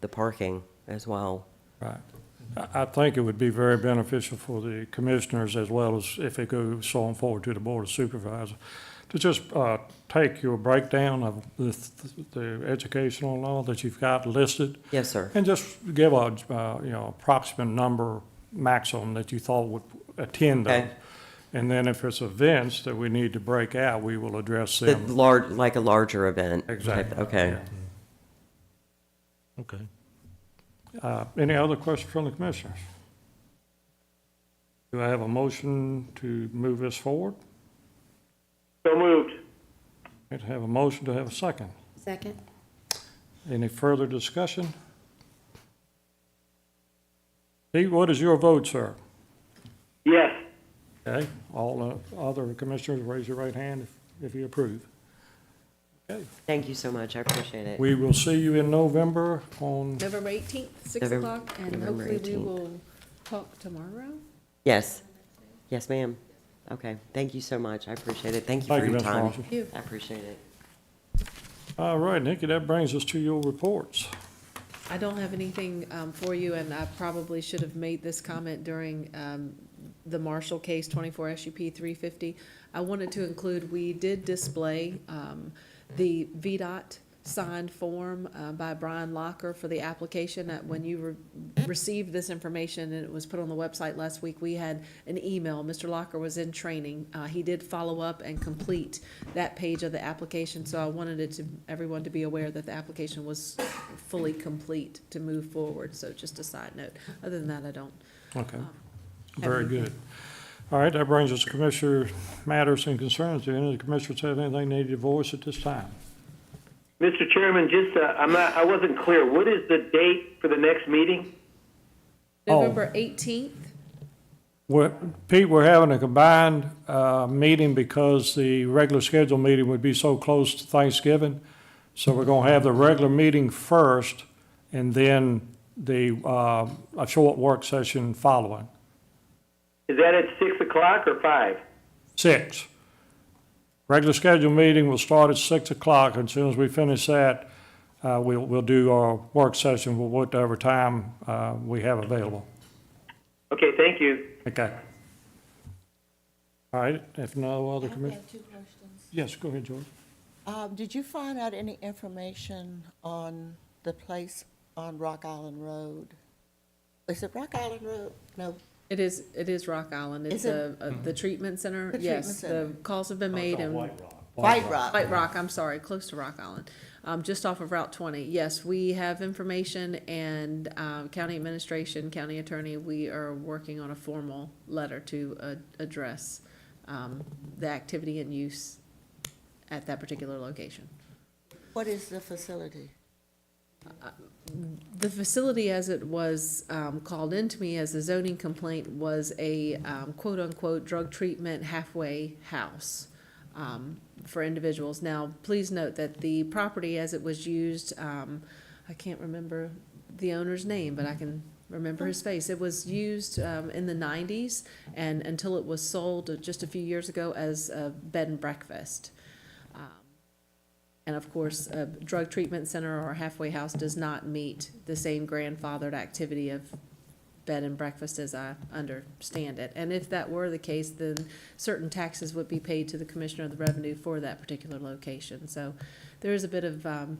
the parking as well. Right. I, I think it would be very beneficial for the commissioners as well as if it goes on forward to the board of supervisors to just, uh, take your breakdown of the, the educational law that you've got listed Yes, sir. and just give a, uh, you know, approximate number maximum that you thought would attend Okay. them. And then if it's events that we need to break out, we will address The them. large, like a larger event. type- Exactly. Okay. Okay. Uh, Any other questions from the commissioners? Do I have a motion to move this forward? So moved. I'd have a motion to have a second. Second? Any further discussion? Pete, what is your vote, sir? Yes. Okay, all uh, other commissioners, raise your right hand if- if you approve. Thank you so much. I appreciate it. We will see you in November on, November 18th, 6 November- o'clock, and November hopefully we 18th. will talk tomorrow. Yes. Yes, ma'am. Okay. Thank you so much. I appreciate it. Thank you Thank for you, your Ms. time. Lawson. You. I appreciate it. all right, Nikki, that brings us to your reports. I don't have anything um, for you, and I probably should have made this comment during um, the Marshall case, 24 SUP 350. I wanted to include, we did display um, the VDOT signed form uh, by Brian Locker for the application. That When you re- received this information and it was put on the website last week, we had an email. Mr. Locker was in training. Uh, He did follow up and complete that page of the application, so I wanted it to, everyone to be aware that the application was fully complete to move forward, so just a side note. Other than that, I don't. Okay, very good. All right, that brings us to Commissioner matters and concerns. Do any of the commissioners have anything they need to voice at this time? Mr. Chairman, just, uh, I'm not, I wasn't clear. What is the date for the next meeting? Oh. November eighteenth, We're- Pete, we're having a combined uh, meeting because the regular scheduled meeting would be so close to Thanksgiving. So we're going to have the regular meeting first and then the, uh, a short work session following, Is that at six o'clock or five? six. Regular scheduled meeting will start at 6 o'clock. As soon as we finish that, uh, we'll, we'll do our work session whatever time uh, we have available. Okay, thank you. Okay. All right, if no other I commissioners? have two questions. Yes, go ahead, George. Um, Did you find out any information on the place on Rock Island Road? Is it Rock Island Road? No, it is, it is Rock Island, it's Is it- a, a- the treatment center, The yes, the treatment calls have been made and. Oh, White Rock. White Rock, I'm sorry, close to Rock Island, um, just off of Route twenty. Yes, we have information and, um, county administration, county attorney, we are working on a formal letter to, uh, address, um, the activity and use at that particular location. What is the facility? The facility, as it was um, called into me as a zoning complaint, was a um, quote-unquote drug treatment halfway house um, for individuals. Now, please note that the property as it was used, um, I can't remember the owner's name, but I can remember his face. It was used um, in the 90s and until it was sold just a few years ago as a bed and breakfast. And of course, a drug treatment center or halfway house does not meet the same grandfathered activity of bed and breakfast as I understand it. And if that were the case, then certain taxes would be paid to the Commissioner of the Revenue for that particular location. So there is a bit of, um,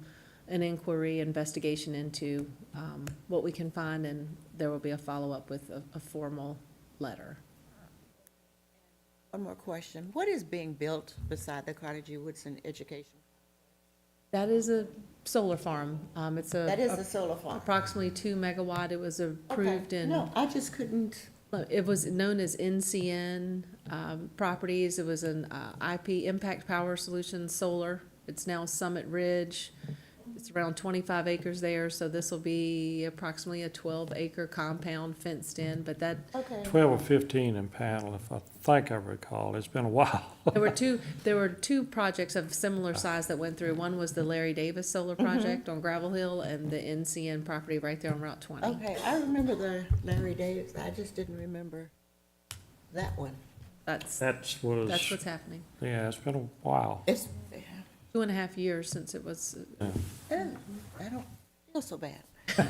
an inquiry, investigation into, um, what we can find, and there will be a follow-up with a, a formal letter. One more question. What is being built beside the Carnegie Woodson Education? That is a solar farm. Um, it's a. That is the solar farm. Approximately two megawatt. It was Okay. approved in. No, I just couldn't, It was known as NCN um, Properties. It was an uh, IP Impact Power Solutions Solar. It's now Summit Ridge. It's around 25 acres there, so this will be approximately a 12-acre compound fenced in, but that, okay. 12 or 15 in panel, if I think I recall. It's been a while. there were two, there were two projects of similar size that went through. One was the Larry Davis Solar Project on Gravel Hill and the NCN property right there on Route 20. Okay, I remember the Larry Davis. I just didn't remember that one. That's, That's that's was, what's happening. yeah, it's been a while. It's, Two and a half years since it was I don't feel so bad.